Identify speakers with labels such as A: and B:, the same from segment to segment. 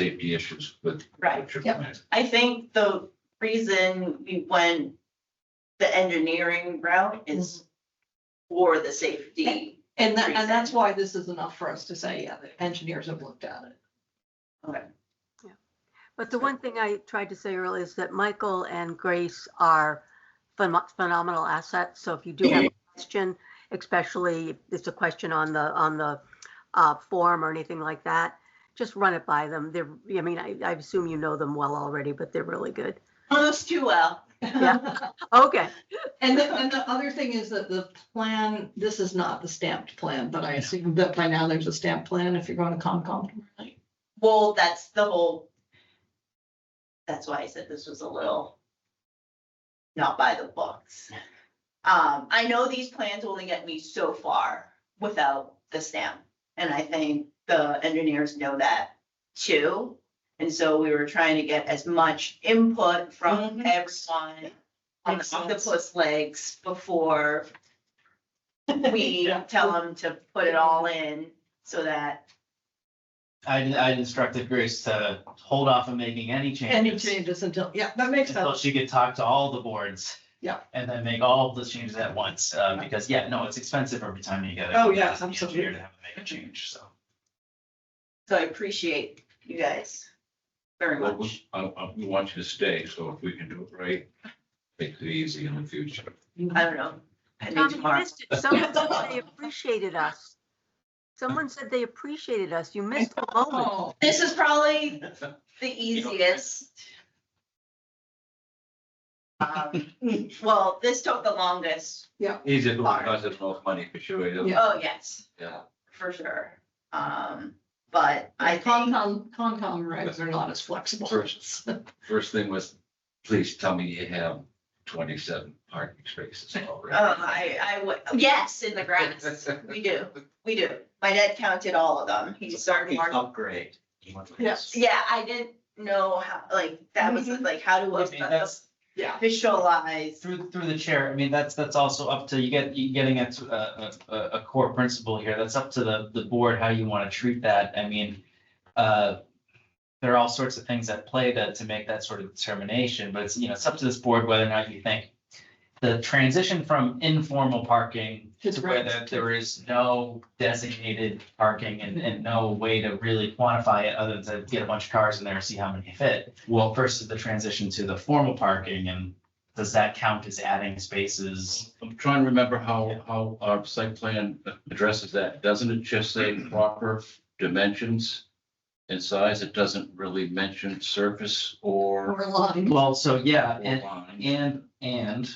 A: may be issues with.
B: Right.
A: trip
C: Yep.
A: plans.
B: I think the reason we went the engineering route is for the safety.
C: And that, and that's why this is enough for us to say, yeah, the engineers have looked at it.
D: But the one thing I tried to say earlier is that Michael and Grace are phenom- phenomenal assets. So if you do have a question, especially if it's a question on the, on the uh, form or anything like that, just run it by them. They're, I mean, I, I assume you know them well already, but they're really good.
B: Almost too well.
D: Yeah. Okay,
C: And the, and the other thing is that the plan, this is not the stamped plan, but I assume that by now there's a stamped plan if you're going to Concom. right?
B: Well, that's the whole. That's why I said this was a little. Not by the books. Um, I know these plans only get me so far without the stamp. And I think the engineers know that too. And so we were trying to get as much input from
C: Mhm.
B: everyone on
C: Makes
B: the
C: sense.
B: octopus legs before we tell them to put it all in so that,
E: I, I instructed Grace to hold off on making any
C: Any
E: changes.
C: changes until, yeah, that makes
E: Until
C: sense.
E: she could talk to all the boards.
C: Yeah.
E: And then make all the changes at once, uh, because, yeah, no, it's expensive every time you get. a-
C: Oh, yeah,
E: as an engineer
C: absolutely.
E: To have to make a change, so.
B: so I appreciate you guys very
A: Well,
B: much.
A: we- I, I, we want you to stay, so if we can do it right, make it easy in the future.
B: I don't know. I
D: Tom,
B: need
D: you
B: tomorrow.
D: missed it. Someone said they appreciated us. Someone said they appreciated us. You missed the moment.
C: Oh,
B: This is probably the
A: You know-
B: easiest. Um, Well, this took the longest.
A: Easier to cost us most money for sure, yeah.
C: Yeah.
B: Oh, yes,
A: yeah.
B: for sure. Um, but I think,
C: Concom, Concom regs are not as flexible.
A: First. First thing was, please tell me you have twenty-seven parking spaces
B: oh,
A: already.
C: Uh,
B: I, I, would- yes, in the grass. We do, we do. My dad counted all of them. He started marking.
E: Upgrade.
C: Yes.
B: Yeah, I didn't know how, like, that was
C: Mhm.
B: like, how do
E: I mean,
B: I
E: that's-
C: Yeah.
B: visualize?
E: Through, through the chair, I mean, that's, that's also up to, you get, you getting at a, a, a core principle here, that's up to the, the board, how you want to treat that, I mean, uh, there are all sorts of things at play to, to make that sort of determination, but it's, you know, it's up to this board whether or not you think the transition from informal parking
C: To
E: to where
C: regs.
E: there- there is no designated parking and, and no way to really quantify it other than to get a bunch of cars in there and see how many fit. Well, versus the transition to the formal parking and does that count as adding spaces?
F: I'm trying to remember how, how our site plan addresses that. Doesn't it just say proper dimensions and size? It doesn't really mention surface or
C: Or line.
E: Well, so yeah,
F: or
E: and,
F: line.
E: and, and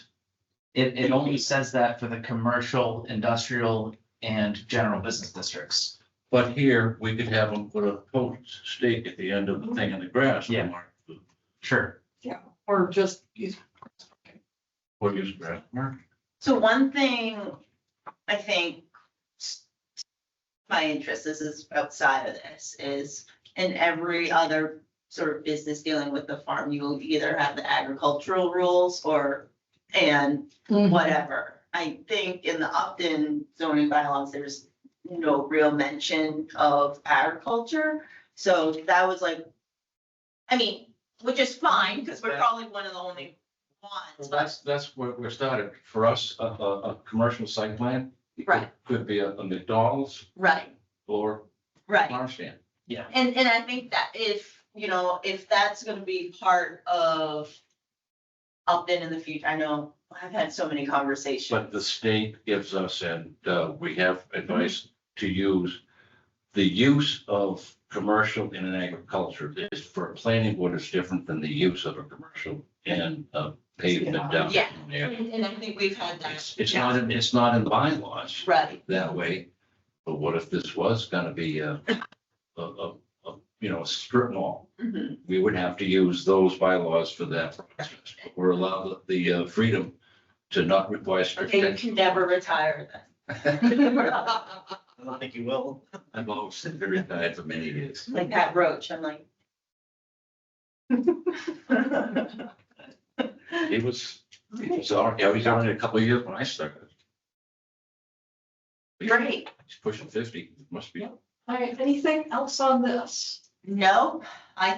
E: it, it only says that for the commercial, industrial and general business districts.
F: But here, we could have them put a post stake at the end of the thing in the grass.
E: Yeah.
F: mark the-
E: Sure.
C: Yeah, or just use.
F: Or use grass mark.
B: So one thing I think s- my interest, this is outside of this, is in every other sort of business dealing with the farm, you will either have the agricultural rules or, and
C: Mm-hmm.
B: whatever. I think in the Upton zoning bylaws, there's no real mention of agriculture. So that was like, I mean, which is fine, because we're probably one of the only ones.
F: Well, That's, that's where we started. For us, a, a, a commercial site plan. it could-
B: Right.
F: Could be a a McDonald's
B: Right,
F: or
B: right.
F: farm stand.
B: And, and I think that if, you know, if that's gonna be part of Upton in the future, I know, I've had so many
F: But
B: conversations.
F: the state gives us, and uh, we have advice to use, the use of commercial in an agriculture is for a planning board is different than the use of a commercial and uh, pavement down.
B: Yeah.
F: there.
B: And and I think we've had that,
F: It's, it's not, in- it's not in bylaws
B: right,
F: that way, but what if this was gonna be a, a, a, a, you know, a strip mall?
B: Mhm.
F: We would have to use those bylaws for that process. We're allowed the uh, freedom to not require strict.
B: okay, you can never retire then.
E: I don't think you will.
F: I've always been very tired for many years.
B: Like that roach, I'm like.
F: It was, it was, already- yeah, he's only a couple of years when I started.
B: Great,
F: He's pushing fifty, must be.
C: All right, anything else on this?
B: No, I